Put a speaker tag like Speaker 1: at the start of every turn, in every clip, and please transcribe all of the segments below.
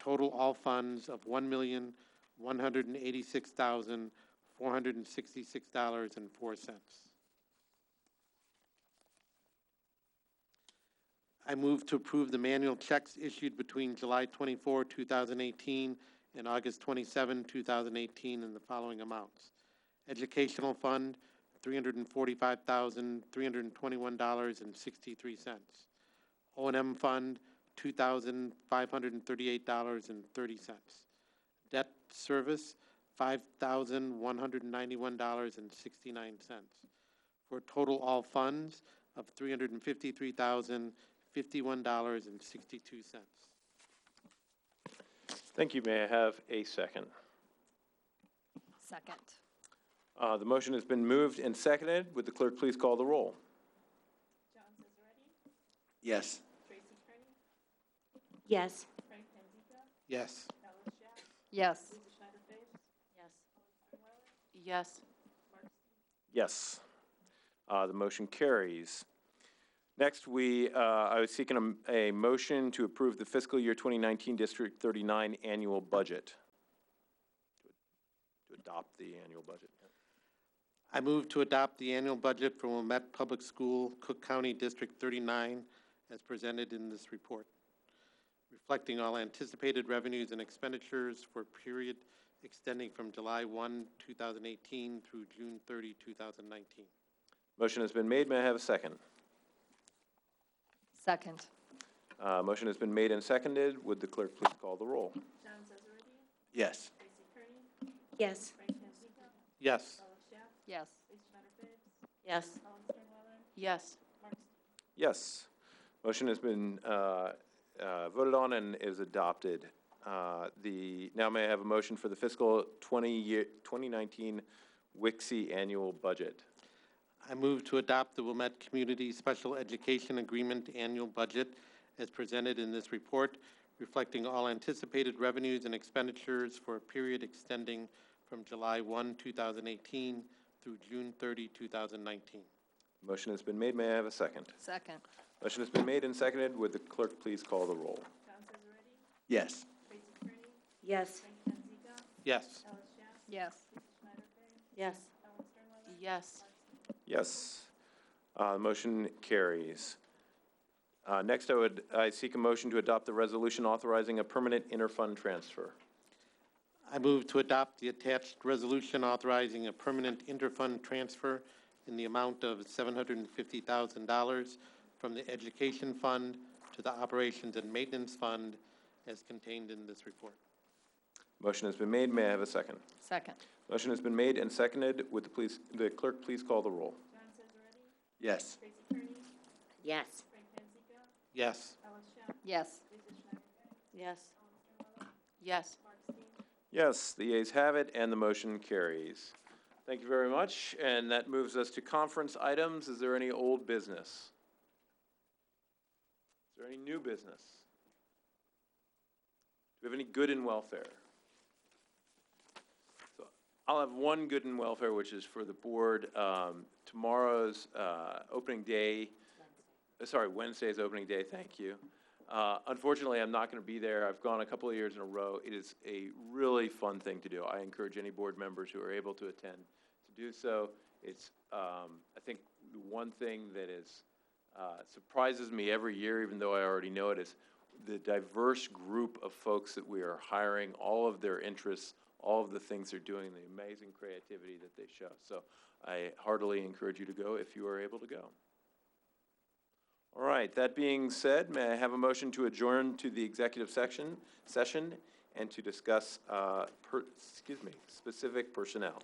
Speaker 1: Total all funds of one million, one hundred and eighty-six thousand, four hundred and sixty-six dollars and four cents. I move to approve the manual checks issued between July 24, 2018, and August 27, 2018, in the following amounts. Educational Fund, $345,321.63. o and m Fund, $2,538.30. Debt Service, $5,191.69 for total all funds of three hundred and fifty-three thousand, fifty-one dollars and sixty-two cents.
Speaker 2: Thank you. May I have a second?
Speaker 3: Second.
Speaker 2: Uh, the motion has been moved and seconded. Would the clerk please call the roll?
Speaker 4: Yes.
Speaker 1: Yes.
Speaker 3: Yes. Yes. Yes. Yes.
Speaker 2: Yes. Uh, the motion carries. Next, we, uh, I was seeking a m- a, motion to approve the fiscal year 2019 District 39 annual budget. To adopt the annual budget.
Speaker 1: I move to adopt the annual budget for Wilmette Public School, Cook County District thirty-nine, as presented in this report, reflecting all anticipated revenues and expenditures for a period extending from July one, two thousand eighteen through June 30, 2019.
Speaker 2: Motion has been made. May I have a second?
Speaker 3: Second.
Speaker 2: Uh, motion has been made and seconded. Would the clerk please call the roll?
Speaker 4: Yes.
Speaker 1: Yes.
Speaker 3: Yes. Yes. Yes. Yes.
Speaker 2: Yes. Motion has been uh, uh, voted on and is adopted. Uh, The, now may I have a motion for the fiscal 20 year, 2019 WIXI annual budget?
Speaker 1: I move to adopt the Wilmette Community Special Education Agreement Annual Budget as presented in this report, reflecting all anticipated revenues and expenditures for a period extending from July 1, 2018 through June 30, 2019.
Speaker 2: Motion has been made. May I have a second?
Speaker 3: Second.
Speaker 2: Motion has been made and seconded. Would the clerk please call the roll?
Speaker 4: Yes.
Speaker 3: Yes.
Speaker 1: Yes.
Speaker 3: Yes. Yes. Yes.
Speaker 2: Yes. Uh, Motion carries. Uh, Next, I would, I seek a motion to adopt the resolution authorizing a permanent interfund transfer.
Speaker 1: I move to adopt the attached resolution authorizing a permanent interfund transfer in the amount of $750,000 from the Education Fund to the Operations and Maintenance Fund as contained in this report.
Speaker 2: Motion has been made. May I have a second?
Speaker 3: Second.
Speaker 2: Motion has been made and seconded. Would the please, the clerk please call the roll?
Speaker 4: Yes.
Speaker 3: Yes.
Speaker 1: Yes.
Speaker 3: Yes. Yes. Yes.
Speaker 2: Yes, the ayes have it, and the motion carries. Thank you very much, and that moves us to conference items. Is there any old business? Is there any new business? Do we have any good in welfare? So I'll have one good in welfare, which is for the board. Um, Tomorrow's uh, opening day, uh, sorry, Wednesday's opening day, thank you. Uh, Unfortunately, I'm not going to be there. I've gone a couple of years in a row. It is a really fun thing to do. I encourage any board members who are able to attend to do so. It's, um, I think, the one thing that is, uh, surprises me every year, even though I already know it, is the diverse group of folks that we are hiring, all of their interests, all of the things they're doing, the amazing creativity that they show. So I heartily encourage you to go if you are able to go. All right, that being said, may I have a motion to adjourn to the executive section, session, and to discuss, uh, per, excuse me, specific personnel?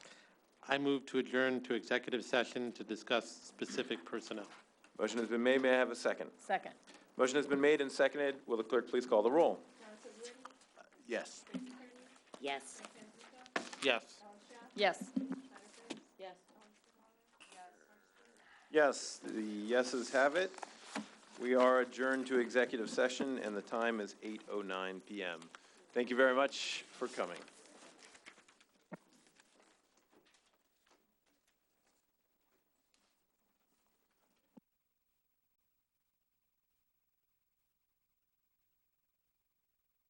Speaker 1: I move to adjourn to executive session to discuss specific personnel.
Speaker 2: Motion has been made, may I have a second?
Speaker 3: Second.
Speaker 2: Motion has been made and seconded, will the clerk please call the roll?
Speaker 4: Yes.
Speaker 3: Yes.
Speaker 1: Yes.
Speaker 3: Yes. Yes.
Speaker 2: Yes, the yeses have it. We are adjourned to executive session, and the time is eight oh nine PM. Thank you very much for coming.